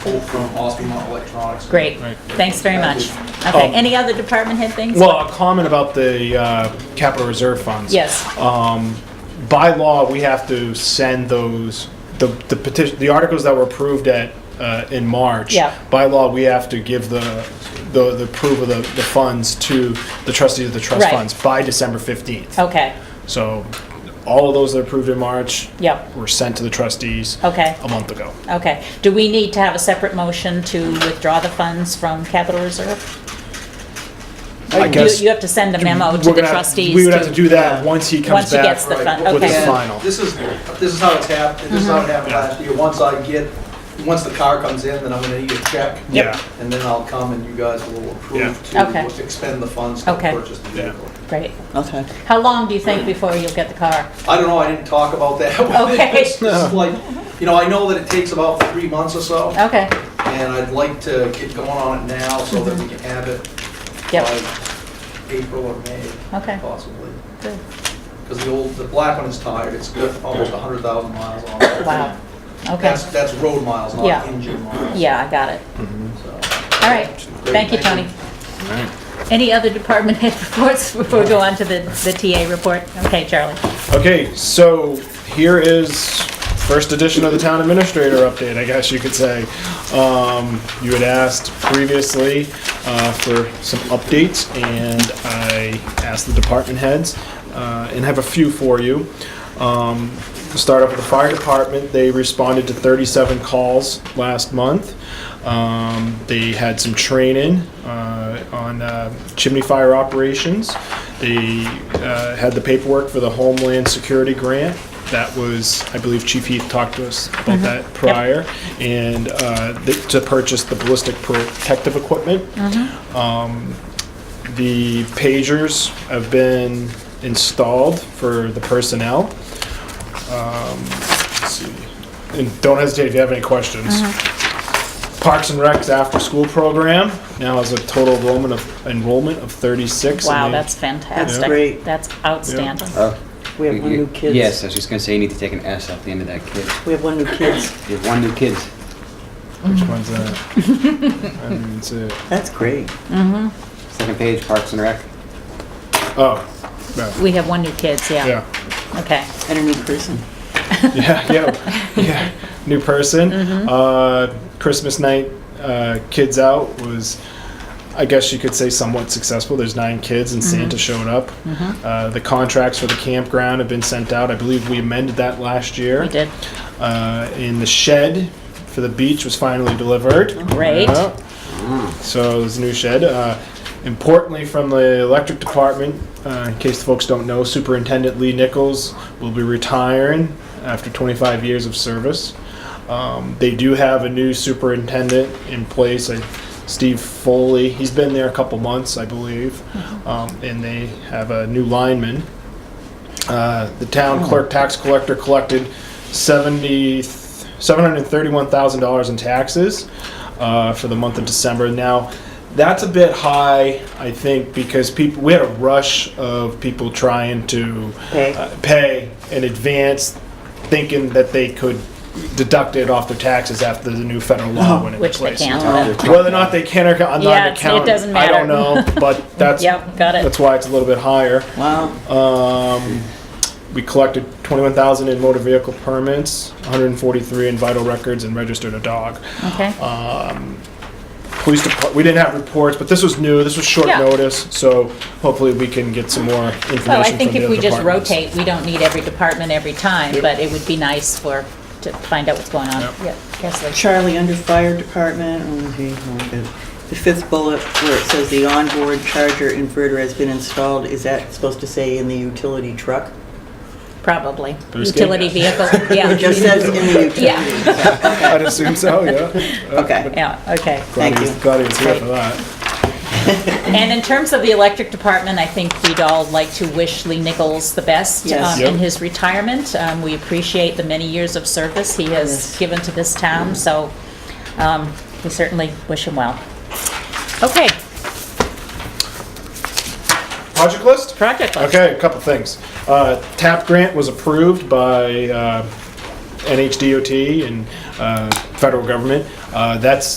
pulled from Osmond Electronics. Great, Right. thanks very much. Okay, Um, any other department head things? Well, a comment about the uh, capital reserve funds. Yes, uh, By law, we have to send those, the the petition, the articles that were approved at, uh, in March. Yeah. By law, we have to give the, the the proof of the the funds to the trustees of the trust Right. Oh. funds by December 15th. okay, So all of those that approved in March. Yep. Were sent to the trustees. Okay. A month ago. okay. Do we need to have a separate motion to withdraw the funds from capital reserve? I You- guess You have to send a memo to we're the gonna have- trustees. We would have to do that Yeah. once he comes Once he back. gets the fund, Right, with the okay. final. This is, this is how it's happened, this is how it happened last year. Once I get, once the car comes in, then I'm gonna need a check. Yeah. And then I'll come and you guys will approve Yeah. to Okay. expend the funds to Okay. purchase the Yeah. vehicle. Great. Okay. How long do you think before you'll get the car? I don't know, I didn't talk about that. Okay. It's just like, you know, I know that it takes about three months or so, Okay, and I'd like to get going on it now so that we can have it Mm-hmm. Yep. by April or May, okay, possibly. good. Because the old, the black one is tired, it's got almost 100,000 miles on it. Wow, okay. That's, that's road miles, not Yeah. engine miles. Yeah, I got it. So, All right, thank you, Tony. Any other department head reports before we go on to the, the TA report? Okay, Charlie. Okay, so here is first edition of the town administrator update, I guess you could say. Um, you had asked previously uh, for some updates, and I asked the department heads uh, and have a few for you. Um, to start off with the fire department, they responded to 37 calls last month. Um, they had some training uh, on uh, chimney fire operations. They uh, had the paperwork for the Homeland Security Grant. That was, I believe Chief Heath talked to us about that prior, and uh, th- to purchase the ballistic protective equipment. The pagers have been installed for the personnel. Um, let's see. And don't hesitate if you have any questions. Uh-huh. Parks and Rec's after-school program now has a total enrollment of, enrollment of 36. and Wow, they- that's fantastic. great. That's outstanding. We have one new kids. Oh. Yes, I was just gonna say, you need to take an S off the end of that kid. We have one new kids. You have one new kid. Which one's that? I didn't see it. That's great. Second page, Parks and Rec. Oh, no. We have one new kids, yeah. yeah. Okay, And a new person. yeah, yeah, yeah. New person. Mm-hmm. Uh, Christmas night, uh, kids out was, I guess you could say, somewhat successful. There's nine kids, and Mm-hmm. Santa showed up. Uh, the contracts for the campground have been sent out. I believe we amended that last year. we did. Uh, and the shed for the beach was finally delivered. Great. Yeah. So there's a new shed. Uh, importantly, from the electric department, uh, in case the folks don't know, Superintendent Lee Nichols will be retiring after 25 years of service. Um, they do have a new superintendent in place, uh, Steve Foley. He's been there a couple months, I believe, um, and they have a new lineman. Uh, the town clerk tax collector collected 70, $731,000 in taxes uh, for the month of December. Now, that's a bit high, I think, because people we had a rush of people trying to Pay. uh, pay in advance, thinking that they could deduct it off their taxes after the new federal law went Oh, into Which they place. can't. Whether or not they can or cannot, Yeah, not it's- it account, doesn't I don't know, matter. but that's Yep, got it. that's why it's a little bit higher. Wow. Um, we collected 21,000 in motor vehicle permits, 143 in vital records, and registered a dog. Okay, uh, Police department, we didn't have reports, but this was new, this was short Yeah. notice, so hopefully we can get some more information from the well, other Oh, I think if we just departments. rotate, we don't need every department every time, Yep. but it would be nice for, to find out what's going on. Yep. Yeah, Leslie. Charlie, under fire department, oh, gee, oh, good. the fifth bullet where it says the onboard charger inverter has been installed, is that supposed to say in the utility truck? probably. Bruce Gates. Utility vehicle, yeah. It just says in the utility. Yeah, I'd assume so, yeah. Okay. yeah, okay. Glad Thank he was- you. Glad he was here for Great. that. And in terms of the electric department, I think we'd all like to wish Lee Nichols the best Yes. um, in Yep. his retirement. Um, We appreciate the many years of service he has Yes. given to this town, so um, we certainly wish him well. Okay, Project list? project list. Okay, a couple things. Uh, TAP grant was approved by uh, NHDOT and uh, federal government. Uh, That's